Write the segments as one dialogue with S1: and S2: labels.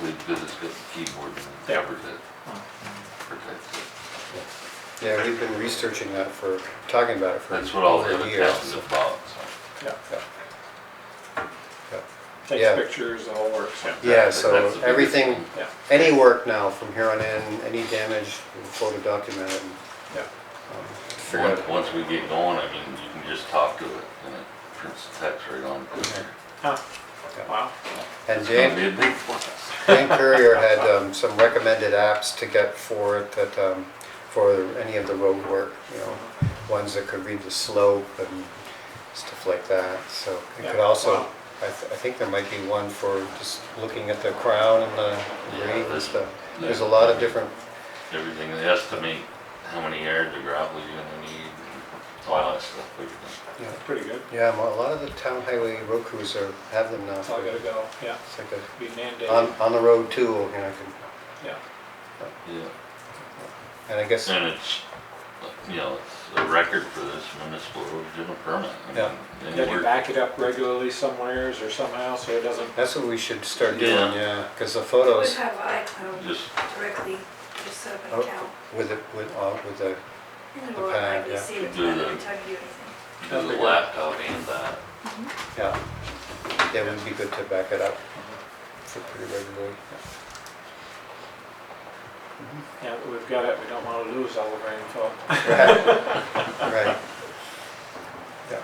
S1: good, it's got the keyboard and it
S2: Yeah.
S1: covers it, protects it.
S3: Yeah, we've been researching that for, talking about it for
S1: That's what all the
S3: over
S1: other
S3: a year.
S1: tests is about, so.
S2: Yeah,
S3: Yeah. Yeah.
S2: takes
S3: Yeah.
S2: pictures, the whole works, yeah.
S3: Yeah,
S1: That's- that's the
S3: so
S1: biggest
S3: everything,
S1: thing.
S2: Yeah,
S3: any work now from here on in, any damage, we'll photo document it and
S2: yeah,
S3: um, figure
S1: Once,
S3: out.
S1: once we get going, I mean, you can just talk to it and it prints the text right on. It's
S2: huh, wow,
S3: And
S1: gonna
S3: Dan,
S1: be a big plus.
S3: Dan Courier had um, some recommended apps to get for it that, um, for any of the road work, you know, ones that could read the slope and stuff like that, so it could
S2: Yeah,
S3: also,
S2: wow.
S3: I, th- I think there might be one for just looking at the crown and the
S1: Yeah,
S3: grade and
S1: there's-
S3: stuff. There's a lot of different,
S1: Everything, they estimate how many yards of gravel you're gonna need and all that stuff. we can-
S3: you know,
S2: that's pretty good,
S3: yeah, mo- a lot of the town highway road crews are, have them now.
S2: that's all
S3: for-
S2: gotta go, yeah,
S3: It's like a,
S2: be
S3: on,
S2: mandated,
S3: on the road tool, you know, can-
S2: yeah,
S1: Yeah,
S3: and I guess,
S1: and it's, you know, it's a record for this municipal original permit. I mean,
S3: Yeah.
S1: they
S2: then you
S1: work-
S2: back it up regularly somewheres or somehow, so it doesn't,
S3: that's what we should start doing,
S1: Yeah.
S3: yeah, because the
S4: We
S3: photos
S4: have iCloud
S1: Just,
S4: directly, just set up an
S3: Oh.
S4: account.
S3: with, the- with, uh, with the
S4: And
S3: The
S4: we'll
S3: pad, yeah.
S4: likely see it
S1: Do the-
S4: every time you do anything.
S1: do the laptop and that.
S3: Yeah, yeah, it would be good to back it up for pretty regularly.
S2: yeah, we've got it, we don't wanna lose all of our info.
S3: Right, right. Yeah,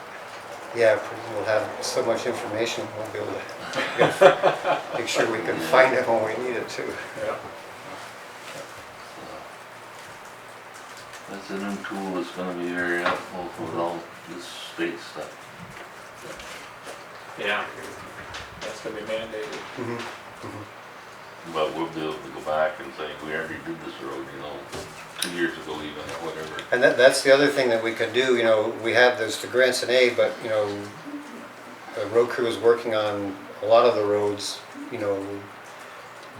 S3: yeah, pretty- we'll have so much information, we'll be able to make sure we can find it when we need it too.
S2: Yeah.
S1: That's a new tool that's gonna be very helpful with all this state stuff.
S2: Yeah, that's gonna be mandated,
S3: Mhm.
S1: But we'll be able to go back and say, we already did this road, you know, two years ago even, or whatever.
S3: And that, that's the other thing that we can do, you know, we have, there's the grants and aid, but, you know, the road crew is working on a lot of the roads, you know,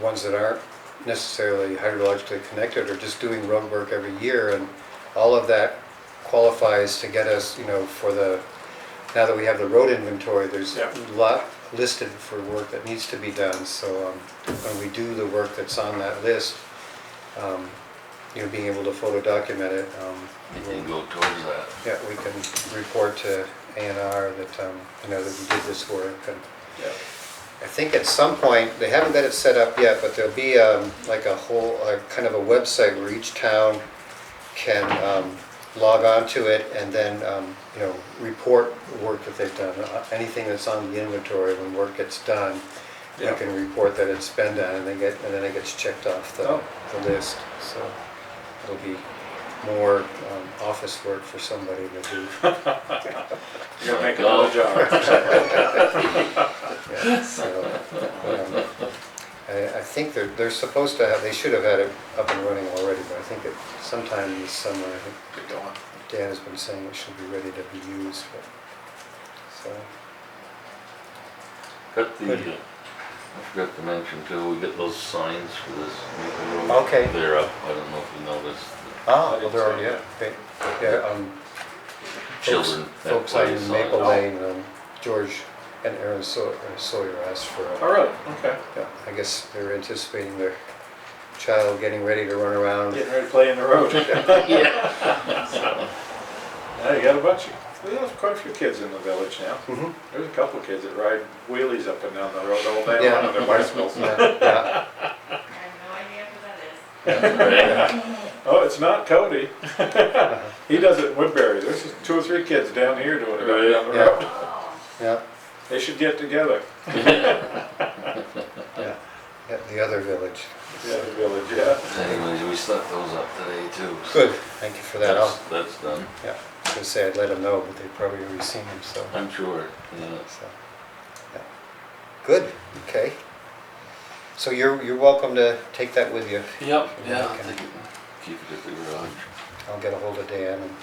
S3: ones that aren't necessarily hydrologically connected or just doing road work every year, and all of that qualifies to get us, you know, for the, now that we have the road inventory, there's a
S2: Yeah.
S3: lot listed for work that needs to be done, so, um, when we do the work that's on that list, um, you know, being able to photo document it, um,
S1: And then go towards that.
S3: yeah, we can report to A and R that, um, you know, that we did this work. And
S2: yeah,
S3: I think at some point, they haven't got it set up yet, but there'll be um, like a whole, uh, kind of a website where each town can um, log on to it and then, um, you know, report the work that they've done. Uh, Anything that's on the inventory, when work gets done, you
S2: Yeah.
S3: can report that it's been done and then get, and then it gets checked off the,
S2: Oh.
S3: the list. So it'll be more um, office work for somebody to do.
S2: you gotta make another job,
S3: Yeah, so, um, I, I think they're, they're supposed to have, they should have had it up and running already, but I think it sometime this summer, I think
S2: get going.
S3: Dan has been saying it should be ready to be used, but, so,
S1: Got the,
S3: Good.
S1: uh, I forgot to mention too, we got those signs for this maple road.
S3: Okay.
S1: They're up, I don't know if you noticed,
S3: ah, well,
S2: didn't
S3: they're
S2: see
S3: already,
S2: that.
S3: up. They- yeah, um,
S1: the
S3: folks-
S1: children that
S3: Folks
S1: play Oh.
S3: on Maple
S1: signs.
S3: Lane, um, George and Aaron Sawyer, Sawyer asked for, a-
S2: Oh, really, okay,
S3: yeah, I guess they're anticipating their child getting ready to run around.
S2: getting ready to play in the road.
S1: Yeah.
S2: Yeah, you got a bunch of, well, there's quite a few kids in the village now.
S3: Mhm.
S2: There's a couple of kids that ride wheelies up and down the road all day
S3: Yeah.
S2: long on their bicycles.
S3: Yeah, yeah,
S4: I have no idea who that is.
S1: Right.
S2: Oh, it's not Cody. He does it in Woodbury. There's two or three kids down here doing it right down the
S3: Right.
S2: road.
S4: Oh.
S3: yeah.
S2: They should get together.
S3: Yeah, yeah, the other village.
S2: The other village, yeah.
S1: Anyways, we stuck those up today too. so
S3: Good, thank you for that.
S1: That's,
S3: I'll-
S1: that's done,
S3: Yeah, I was gonna say I'd let them know, but they've probably already seen them, so,
S1: I'm sure, yeah.
S3: so, yeah. Good, okay. So you're, you're welcome to take that with you.
S1: Yep,
S3: yeah,
S1: I
S3: okay.
S1: think Keep it at the garage.
S3: I'll get a hold of Dan and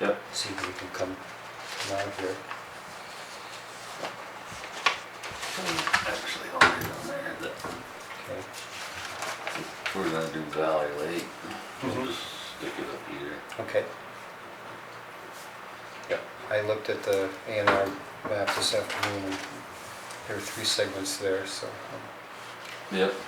S1: Yep.
S3: see if we can come come out here.
S1: Actually, I'll be on there, that,
S3: Okay,
S1: we're gonna do Valley Lake, we'll
S2: Mm-hmm.
S3: Mhm.
S1: just stick it up here.
S3: okay. Yeah, I looked at the A and R map this afternoon, and there are three segments there, so. um,
S1: Yep.